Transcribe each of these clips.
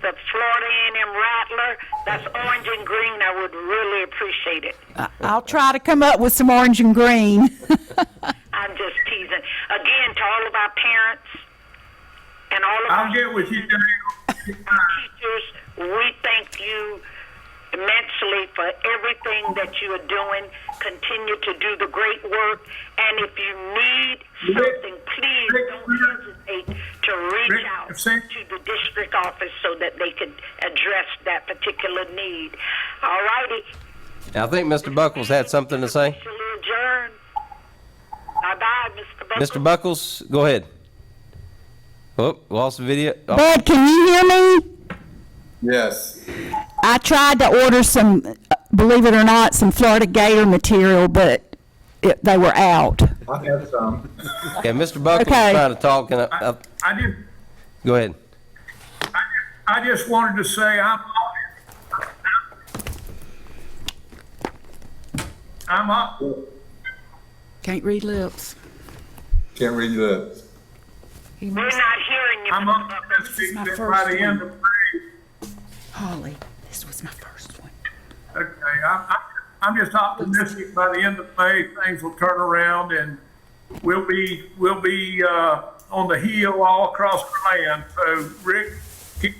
the Florida A&M Rattler. That's orange and green. I would really appreciate it. I'll try to come up with some orange and green. I'm just teasing. Again, to all of our parents and all of I'll our get with you, Diane. teachers, we thank you immensely for everything that you are doing. Continue to do the great work. And if you need something, please Rick, don't Rick. hesitate to reach Rick, out if say- to the district office so that they can address that particular need. All righty. I think Mr. Buckles had something to say. Shall we adjourn? Bye-bye, Mr. Buckles. Mr. Buckles, go ahead. Oh, lost the video. Oh, Bud, can you hear me? Yes. I tried to order some, uh, believe it or not, some Florida Gator material, but it, they were out. I have Um, some. Okay, Mr. Buckles is Okay. trying to talk, and I, I, I, I just, go ahead. I, I just wanted to say I'm honored. I'm up. Can't read lips. Can't read your lips. He We're must, not hearing you, I'm Mr. up Buckles. to speak my that first by the end of May. Holly, this was my first one. Okay, I'm, I'm- I'm just optimistic by the end of May, things will turn around and we'll be, we'll be, uh, on the heel all across the land. So Rick, keep,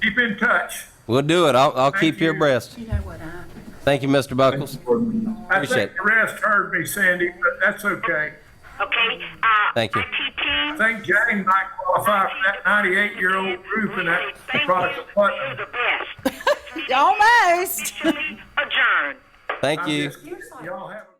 keep in touch. We'll do it. I'll, I'll keep you you. abreast. You know what I? Thank you, Mr. Buckles. I Appreciate think it. the rest heard me, Sandy, but that's okay. Okay? Uh, Thank you. IT team, I think Jane might qualify for that ninety-eight-year-old roof and that Thank product you. of You're Putnam. the best. Almost. Officially adjourned. Thank I'm you. just- Y'all have. a-